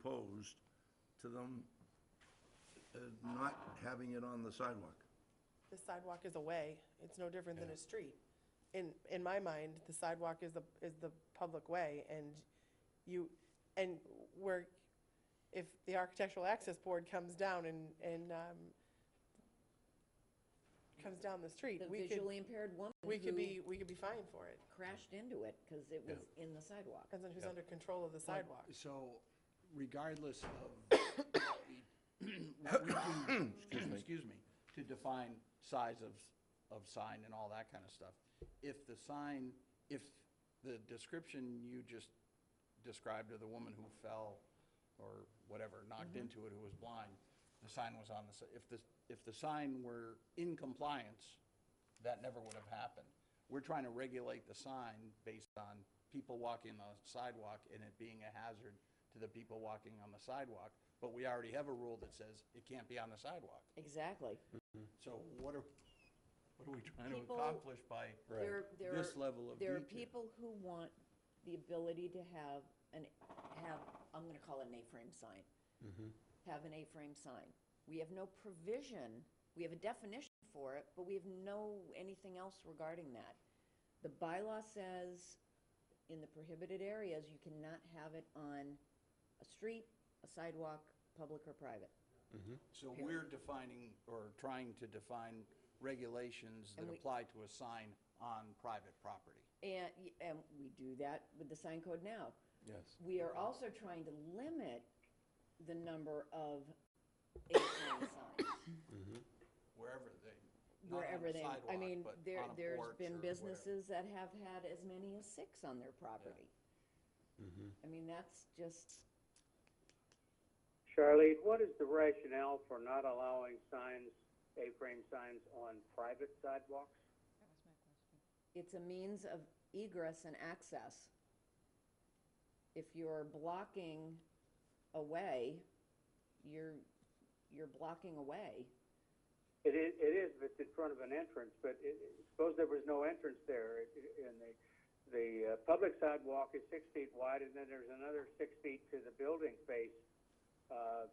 opposed to them uh, not having it on the sidewalk. The sidewalk is a way, it's no different than a street. In, in my mind, the sidewalk is the, is the public way, and you, and where, if the Architectural Access Board comes down and, and, um, comes down the street, The we could, visually impaired woman we could who be, we could be fined for it, crashed into it because it was in the sidewalk. depends on who's under control of the sidewalk. So regardless of what we, what we do, excuse me, to define size of, of sign and all that kind of stuff, if the sign, if the description you just described of the woman who fell or whatever, knocked into it, who was blind, the sign was on the, si- if the, if the sign were in compliance, that never would have happened. We're trying to regulate the sign based on people walking on the sidewalk and it being a hazard to the people walking on the sidewalk, but we already have a rule that says it can't be on the sidewalk. Exactly. So what are, what are we trying to People- accomplish by There, there this are- level of There are people detail? who want the ability to have an, have, I'm gonna call it an A-frame sign. Mm-hmm. Have an A-frame sign. We have no provision, we have a definition for it, but we have no, anything else regarding that. The bylaw says in the prohibited areas, you cannot have it on a street, a sidewalk, public or private. So we're defining, or trying to define regulations that And we- apply to a sign on private property. And, y- and we do that with the sign code now. Yes. We are also trying to limit the number of A-frame signs wherever they, not on wherever the they, I mean, sidewalk, but there, on a there's porch or been whatever. businesses that have had as many as six on their property. Mm-hmm. I mean, that's just, Charlene, what is the rationale for not allowing signs, A-frame signs on private sidewalks? it's a means of egress and access. If you're blocking a way, you're, you're blocking a way. It is, it is, if it's in front of an entrance, but it, it- suppose there was no entrance there, it- it- and the, the uh, public sidewalk is six feet wide, and then there's another six feet to the building face. Uh,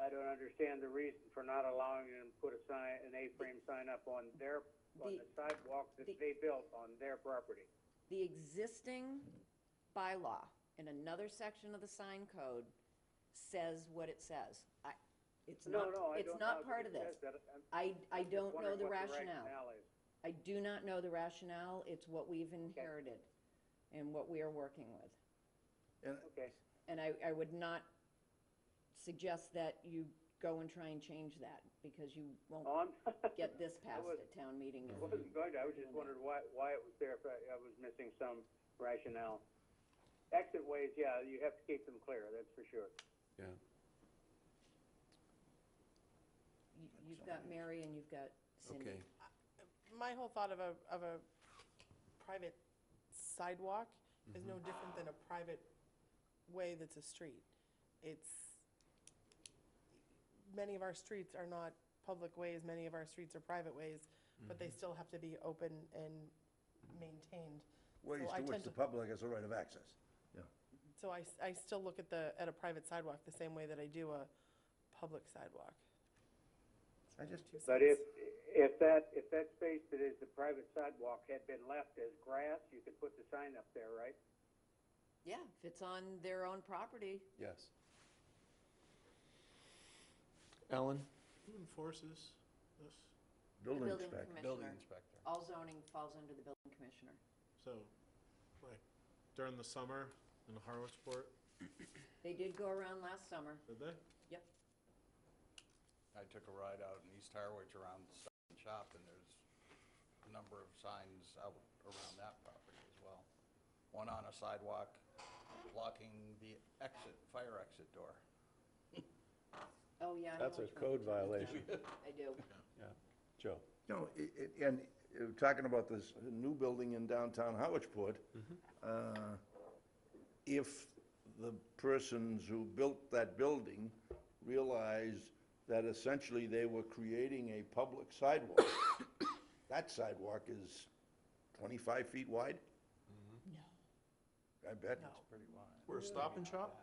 I don't understand the reason for not allowing them to put a sign, an A-frame sign up on their, on The- the sidewalk that the- they built on their property. The existing bylaw in another section of the sign code says what it says. I, it's No, not, no, I it's don't know not that part it of this. says that. I'm- I, I I'm just don't know wondering the what rationale. is. I do not know the rationale. It's what we've inherited and what we are working with. And Okay, And I, I would not suggest that you go and try and change that because you won't Oh, I'm- get this passed was- at town meeting. I wasn't going to, I was just wondering why, why it was there, if I, I was missing some rationale. Exit ways, yeah, you have to keep them clear, that's for sure. Yeah. You- You've got Mary and you've got Cindy. Okay. my whole thought of a, of a private sidewalk is no different than a private way that's a street. It's, many of our streets are not public ways, many of our streets are private ways, but they still have to be open and maintained. ways So I to which tend the public has a right of access. Yeah. So I, s- I still look at the, at a private sidewalk the same way that I do a public sidewalk. I just, But if, if that, if that space that is the private sidewalk had been left as grass, you could put the sign up there, right? Yeah, if it's on their own property, Yes. Ellen? Who enforces this? the building building inspector. Building commissioner. inspector. All zoning falls under the building commissioner. So, like, during the summer in Harwichport, They did go around last summer. did they? Yep. I took a ride out in East Harwich around the second shop, and there's a number of signs out around that property as well. One on a sidewalk blocking the exit, fire exit door. Oh, yeah. I know That's a which one. code violation. I do. Yeah. Joe? No, i- i- and uh, talking about this new building in downtown Howardsport, uh, if the persons who built that building realized that essentially they were creating a public sidewalk, that sidewalk is 25 feet wide? No. I bet. No. It's pretty wide. We're a stop and shop?